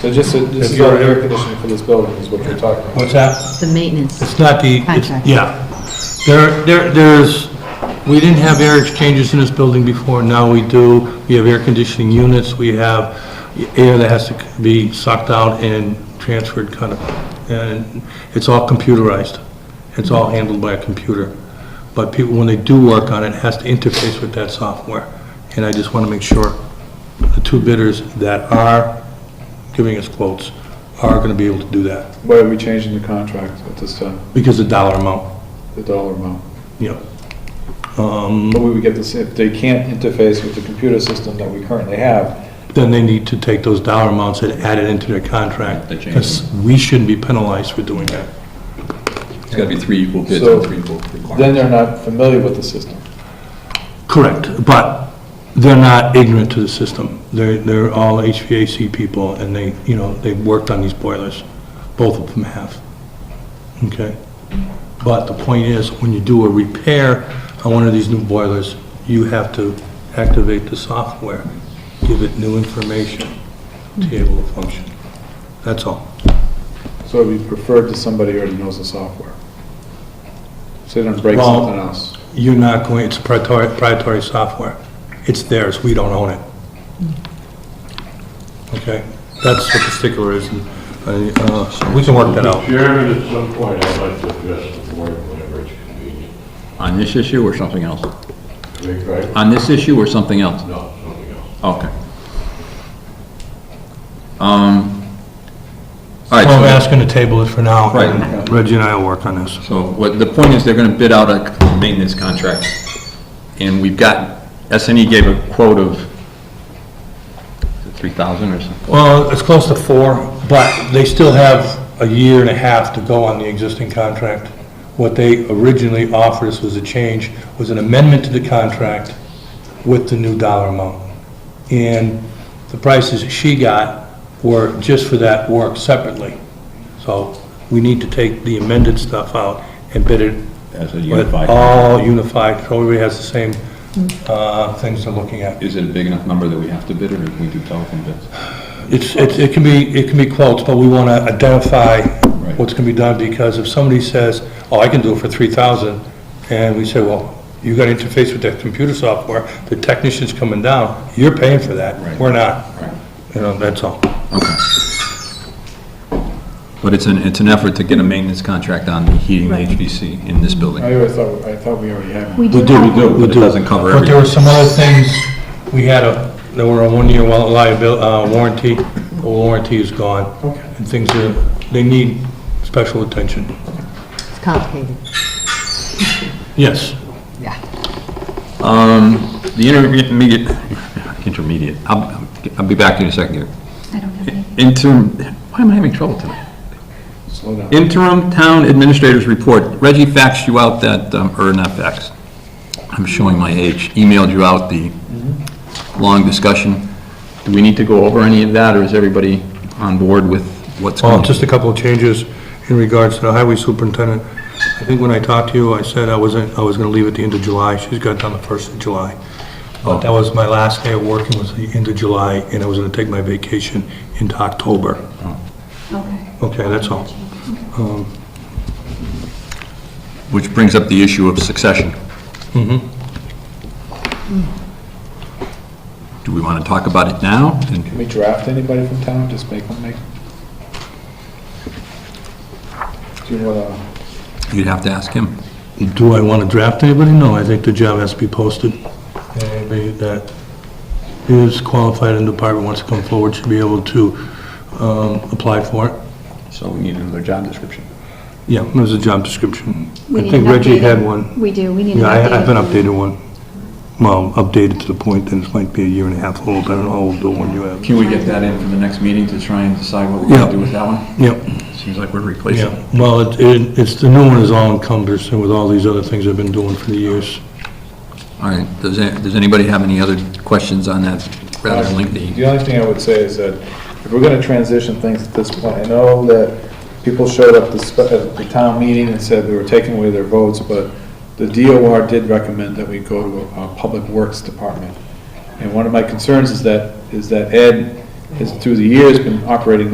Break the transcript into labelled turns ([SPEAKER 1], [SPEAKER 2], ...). [SPEAKER 1] So just, a- this
[SPEAKER 2] If
[SPEAKER 1] is all
[SPEAKER 2] you're-
[SPEAKER 1] air conditioning for this building is what you're talking about.
[SPEAKER 2] What's that?
[SPEAKER 3] The maintenance.
[SPEAKER 2] It's not the, it's-
[SPEAKER 3] Contract.
[SPEAKER 2] yeah. There, there, there's, we didn't have air exchangers in this building before, now we do. We have air conditioning units, we have air that has to be sucked out and transferred kind of, and it's all computerized. It's all handled by a computer. But people, when they do work on it, it has to interface with that software. And I just want to make sure the two bidders that are giving us quotes are going to be able to do that
[SPEAKER 1] Why are we changing the contract at this time,
[SPEAKER 2] because of dollar amount.
[SPEAKER 1] the dollar amount?
[SPEAKER 2] Yeah.
[SPEAKER 1] But we would get this, if they can't interface with the computer system that we currently have,
[SPEAKER 2] Then they need to take those dollar amounts and add it into their contract.
[SPEAKER 4] They change
[SPEAKER 2] Because we shouldn't be penalized for doing that.
[SPEAKER 4] It's got to be three equal bids
[SPEAKER 1] So,
[SPEAKER 4] and three equal
[SPEAKER 1] then
[SPEAKER 4] requirements.
[SPEAKER 1] they're not familiar with the system.
[SPEAKER 2] Correct, but they're not ignorant to the system. They're, they're all HVAC people, and they, you know, they've worked on these boilers. Both of them have. Okay? But the point is, when you do a repair on one of these new boilers, you have to activate the software, give it new information to be able to function. That's all.
[SPEAKER 1] So it'd be preferred to somebody who already knows the software. So they don't break
[SPEAKER 2] Well-
[SPEAKER 1] something else.
[SPEAKER 2] You're not going, it's proprietary proprietary software. It's theirs, we don't own it. Okay? That's what the stickler is, and, uh, so we can work that out.
[SPEAKER 5] Chairman, at some point, I'd like to address the board whenever it's convenient.
[SPEAKER 4] On this issue or something else?
[SPEAKER 5] Am I correct?
[SPEAKER 4] On this issue or something else?
[SPEAKER 5] No, something else.
[SPEAKER 4] Okay. Um, All right,
[SPEAKER 2] Well, I'm
[SPEAKER 4] so-
[SPEAKER 2] asking to table it for now.
[SPEAKER 4] Right.
[SPEAKER 2] and Reggie and I will work on this.
[SPEAKER 4] So what, the point is, they're gonna bid out a maintenance contract, and we've got, SNE gave a quote of 3,000 or something.
[SPEAKER 2] Well, it's close to four, but they still have a year and a half to go on the existing contract. What they originally offered us was a change, was an amendment to the contract with the new dollar amount. And the prices she got were just for that work separately. So we need to take the amended stuff out and bid it.
[SPEAKER 4] As a
[SPEAKER 2] with
[SPEAKER 4] unified.
[SPEAKER 2] All unified, so everybody has the same uh, things they're looking at.
[SPEAKER 4] Is it a big enough number that we have to bid, or can we do telephone bids?
[SPEAKER 2] It's, it's- it can be, it can be quotes, but we want to identify
[SPEAKER 4] Right.
[SPEAKER 2] what's going to be done, because if somebody says, oh, I can do it for 3,000, and we say, well, you got to interface with that computer software, the technician's coming down, you're paying for that,
[SPEAKER 4] Right.
[SPEAKER 2] we're not.
[SPEAKER 4] Right.
[SPEAKER 2] You know, that's all.
[SPEAKER 4] But it's an, it's an effort to get a maintenance contract on the heating and HVC in this building.
[SPEAKER 1] I always thought, I thought we already had one.
[SPEAKER 3] We do have one.
[SPEAKER 4] But it doesn't cover
[SPEAKER 2] But there
[SPEAKER 4] everything.
[SPEAKER 2] were some other things, we had a, there were a one-year liability, uh, warranty, the warranty is gone.
[SPEAKER 1] Okay.
[SPEAKER 2] And things are, they need special attention.
[SPEAKER 3] It's complicated.
[SPEAKER 2] Yes.
[SPEAKER 3] Yeah.
[SPEAKER 4] The intermediate, intermediate, I'll, I'll be back in a second here.
[SPEAKER 6] I don't have any.
[SPEAKER 4] Interim, why am I having trouble tonight?
[SPEAKER 1] Slow down.
[SPEAKER 4] Interim Town Administrator's Report. Reggie faxed you out that, um, or not faxed, I'm showing my age, emailed you out the long discussion. Do we need to go over any of that, or is everybody on board with what's
[SPEAKER 2] Well,
[SPEAKER 4] going?
[SPEAKER 2] just a couple of changes in regards to the highway superintendent. I think when I talked to you, I said I wasn't, I was gonna leave at the end of July. She's got done the first of July. But that was my last day of working was the end of July, and I was gonna take my vacation into October.
[SPEAKER 6] Okay.
[SPEAKER 2] Okay, that's all.
[SPEAKER 4] Which brings up the issue of succession.
[SPEAKER 2] Mm-hmm.
[SPEAKER 4] Do we want to talk about it now?
[SPEAKER 1] Can
[SPEAKER 4] And
[SPEAKER 1] we draft anybody from town, just make one make? Do you wanna,
[SPEAKER 4] You'd have to ask him.
[SPEAKER 2] Do I wanna draft anybody? No, I think the job has to be posted. And Anybody that is qualified in the department wants to come forward should be able to, um, apply for it.
[SPEAKER 4] So we need another job description.
[SPEAKER 2] Yeah, there's a job description.
[SPEAKER 6] We
[SPEAKER 2] I
[SPEAKER 6] need
[SPEAKER 2] think
[SPEAKER 6] an
[SPEAKER 2] Reggie had
[SPEAKER 6] updated-
[SPEAKER 2] one.
[SPEAKER 6] We do, we need an
[SPEAKER 2] Yeah, I
[SPEAKER 6] updated.
[SPEAKER 2] have an
[SPEAKER 6] one.
[SPEAKER 2] updated one. Well, updated to the point that it might be a year and a half old, I don't know how old the one you have.
[SPEAKER 4] Can we get that in for the next meeting to try and decide what we're going
[SPEAKER 2] Yeah.
[SPEAKER 4] to do with that one?
[SPEAKER 2] Yep,
[SPEAKER 4] Seems like we're replacing.
[SPEAKER 2] yeah, well, it- it, it's, the new one is all encompassing with all these other things I've been doing for the years.
[SPEAKER 4] All right, does, a- does anybody have any other questions on that rather lengthy?
[SPEAKER 1] Um, the only thing I would say is that if we're gonna transition things at this point, I know that people showed up to spe- at the town meeting and said we were taking away their votes, but the DOR did recommend that we go to a, a public works department. And one of my concerns is that, is that Ed has through the years been operating